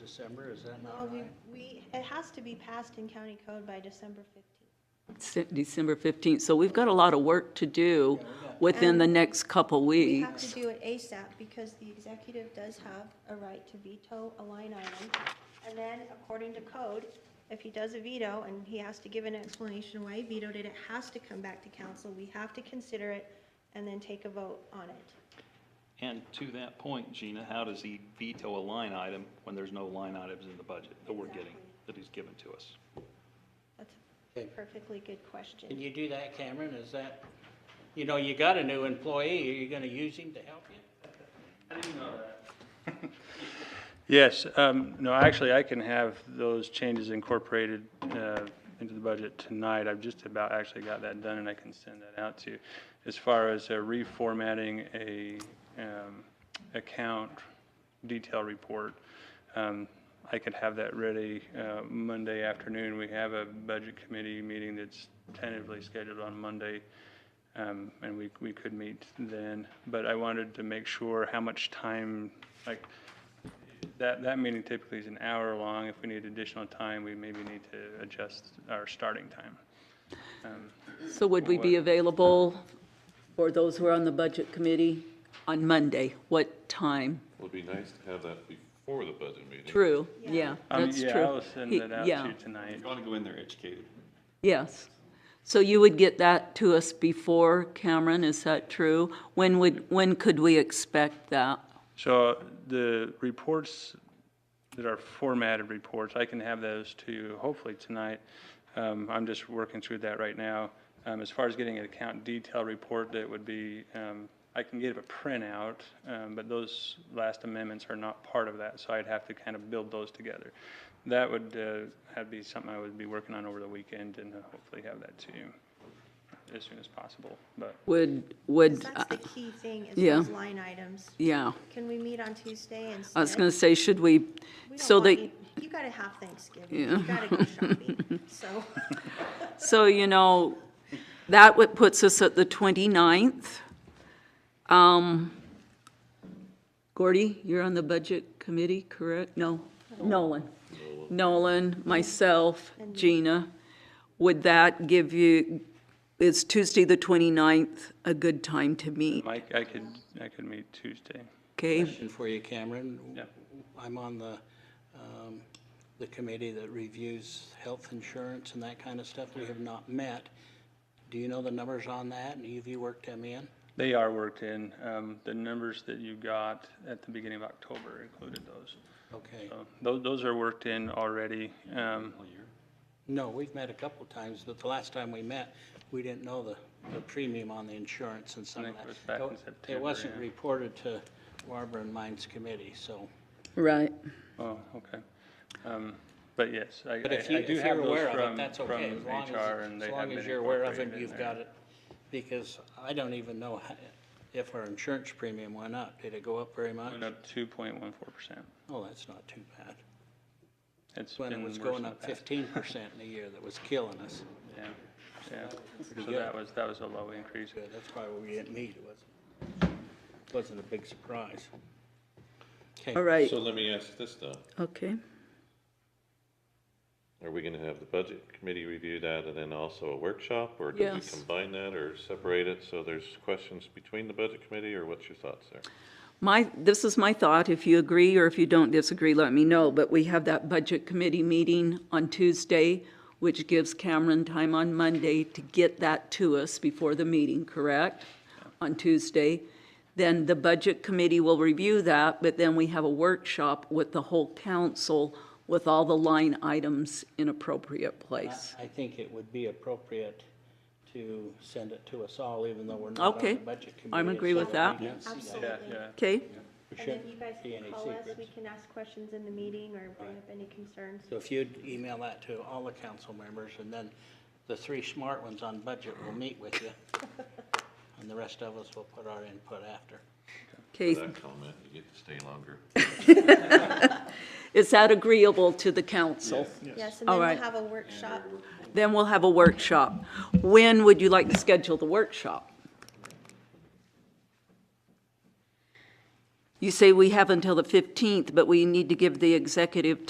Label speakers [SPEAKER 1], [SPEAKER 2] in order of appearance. [SPEAKER 1] December, is that
[SPEAKER 2] Well,
[SPEAKER 1] not
[SPEAKER 2] Oh, we,
[SPEAKER 1] right?
[SPEAKER 2] we, it has to be passed in county code by December 15th.
[SPEAKER 3] Se- December 15th. So we've got a lot of work to do within the next couple
[SPEAKER 2] We have to
[SPEAKER 3] weeks.
[SPEAKER 2] do it ASAP because the executive does have a right to veto a line item. And then according to code, if he does a veto and he has to give an explanation why he vetoed it, it has to come back to council. We have to consider it and then take a vote on it.
[SPEAKER 4] And to that point, Gina, how does he veto a line item when there's no line items in the budget that we're getting, that he's given to us?
[SPEAKER 2] That's a
[SPEAKER 1] Okay.
[SPEAKER 2] perfectly good question.
[SPEAKER 1] Can you do that, Cameron? Is that, you know, you got a new employee, are you gonna use him to help you?
[SPEAKER 5] Yes, um, no, actually, I can have those changes incorporated uh, into the budget tonight. I've just about actually got that done, and I can send that out to you. As far as uh, reformatting a um, account detail report, um, I could have that ready uh, Monday afternoon. We have a budget committee meeting that's tentatively scheduled on Monday, um, and we, we could meet then. But I wanted to make sure how much time, like, that, that meeting typically is an hour long. If we need additional time, we maybe need to adjust our starting time.
[SPEAKER 3] So would we be available for those who are on the budget committee on Monday? What time?
[SPEAKER 6] Would be nice to have that before the budget meeting.
[SPEAKER 3] True, yeah,
[SPEAKER 5] Um,
[SPEAKER 3] that's true.
[SPEAKER 5] Yeah, I'll send
[SPEAKER 3] He-
[SPEAKER 5] that out
[SPEAKER 3] yeah,
[SPEAKER 5] to you tonight.
[SPEAKER 4] want to go in there educated.
[SPEAKER 3] Yes. So you would get that to us before, Cameron, is that true? When would, when could we expect that?
[SPEAKER 5] So the reports that are formatted reports, I can have those to you hopefully tonight. Um, I'm just working through that right now. Um, as far as getting an account detail report, that would be, um, I can get a printout, um, but those last amendments are not part of that, so I'd have to kind of build those together. That would, uh, that'd be something I would be working on over the weekend and uh, hopefully have that to you as soon as possible, but.
[SPEAKER 3] Would, would,
[SPEAKER 2] That's the
[SPEAKER 3] uh,
[SPEAKER 2] key thing is
[SPEAKER 3] yeah.
[SPEAKER 2] those line items.
[SPEAKER 3] yeah.
[SPEAKER 2] Can we meet on Tuesday and?
[SPEAKER 3] I was going to say, should we,
[SPEAKER 2] We don't
[SPEAKER 3] so
[SPEAKER 2] want
[SPEAKER 3] that,
[SPEAKER 2] you- You gotta have Thanksgiving, you gotta go shopping, so.
[SPEAKER 3] so, you know, that what puts us at the 29th. Um, Gordy, you're on the budget committee, correct? No, Nolan. Nolan, myself, Gina. Would that give you, is Tuesday, the 29th, a good time to meet?
[SPEAKER 5] Mike, I could, I could meet Tuesday.
[SPEAKER 3] Okay,
[SPEAKER 1] Question for you, Cameron.
[SPEAKER 5] Yeah.
[SPEAKER 1] I'm on the, um, the committee that reviews health insurance and that kind of stuff. We have not met. Do you know the numbers on that? And have you worked them in?
[SPEAKER 5] They are worked in. Um, the numbers that you got at the beginning of October included those.
[SPEAKER 1] Okay.
[SPEAKER 5] So those, those are worked in already. Um,
[SPEAKER 1] No, we've met a couple times, but the last time we met, we didn't know the, the premium on the insurance and some
[SPEAKER 5] I
[SPEAKER 1] of
[SPEAKER 5] think
[SPEAKER 1] that.
[SPEAKER 5] it was back in
[SPEAKER 1] So It
[SPEAKER 5] September,
[SPEAKER 1] wasn't
[SPEAKER 5] yeah.
[SPEAKER 1] reported to Barbara and Mine's committee, so.
[SPEAKER 3] right.
[SPEAKER 5] oh, okay. Um, but yes, I, I I
[SPEAKER 1] But if you,
[SPEAKER 5] do
[SPEAKER 1] if you're
[SPEAKER 5] have those
[SPEAKER 1] aware of it,
[SPEAKER 5] from,
[SPEAKER 1] that's
[SPEAKER 5] from
[SPEAKER 1] okay, as long as,
[SPEAKER 5] HR and they
[SPEAKER 1] as
[SPEAKER 5] have
[SPEAKER 1] long
[SPEAKER 5] been
[SPEAKER 1] as you're aware of
[SPEAKER 5] incorporated
[SPEAKER 1] it,
[SPEAKER 5] in
[SPEAKER 1] you've
[SPEAKER 5] there.
[SPEAKER 1] got it. Because I don't even know how- if our insurance premium went up. Did it go up very much?
[SPEAKER 5] Went up two point one four percent.
[SPEAKER 1] Oh, that's not too bad.
[SPEAKER 5] It's
[SPEAKER 1] When
[SPEAKER 5] been
[SPEAKER 1] it
[SPEAKER 5] worse
[SPEAKER 1] was
[SPEAKER 5] in
[SPEAKER 1] going
[SPEAKER 5] the
[SPEAKER 1] up
[SPEAKER 5] past.
[SPEAKER 1] fifteen percent in a year, that was killing us.
[SPEAKER 5] Yeah, yeah. So
[SPEAKER 1] good.
[SPEAKER 5] that was, that was a low increase.
[SPEAKER 1] Good, that's why we didn't meet, it wasn't, wasn't a big surprise. Okay.
[SPEAKER 3] All right,
[SPEAKER 6] So let me ask this though,
[SPEAKER 3] okay.
[SPEAKER 6] are we gonna have the budget committee review that and then also a workshop? Or do we
[SPEAKER 3] Yes.
[SPEAKER 6] combine that or separate it so there's questions between the budget committee or what's your thoughts there?
[SPEAKER 3] My, this is my thought, if you agree or if you don't disagree, let me know, but we have that budget committee meeting on Tuesday, which gives Cameron time on Monday to get that to us before the meeting, correct? On Tuesday. Then the budget committee will review that, but then we have a workshop with the whole council with all the line items in appropriate place.
[SPEAKER 1] I I think it would be appropriate to send it to us all, even though we're not on
[SPEAKER 3] Okay,
[SPEAKER 1] the budget committee.
[SPEAKER 3] I'm agree with
[SPEAKER 1] so
[SPEAKER 3] that.
[SPEAKER 1] we can see
[SPEAKER 5] Yeah,
[SPEAKER 2] Absolutely.
[SPEAKER 5] yeah.
[SPEAKER 3] Okay?
[SPEAKER 1] There
[SPEAKER 2] And then
[SPEAKER 1] shouldn't
[SPEAKER 2] you guys
[SPEAKER 1] be
[SPEAKER 2] can
[SPEAKER 1] any
[SPEAKER 2] call us,
[SPEAKER 1] secrets.
[SPEAKER 2] we can ask questions in the meeting or bring up any concerns.
[SPEAKER 1] So if you'd email that to all the council members, and then the three smart ones on budget will meet with you, and the rest of us will put our input after.
[SPEAKER 3] Okay,
[SPEAKER 6] That comment, you get to stay longer.
[SPEAKER 3] is that agreeable to the council?
[SPEAKER 2] Yes, and then
[SPEAKER 3] All
[SPEAKER 2] we'll
[SPEAKER 3] right.
[SPEAKER 2] have a workshop.
[SPEAKER 3] Then we'll have a workshop. When would you like to schedule the workshop? You say we have until the 15th, but we need to give the executive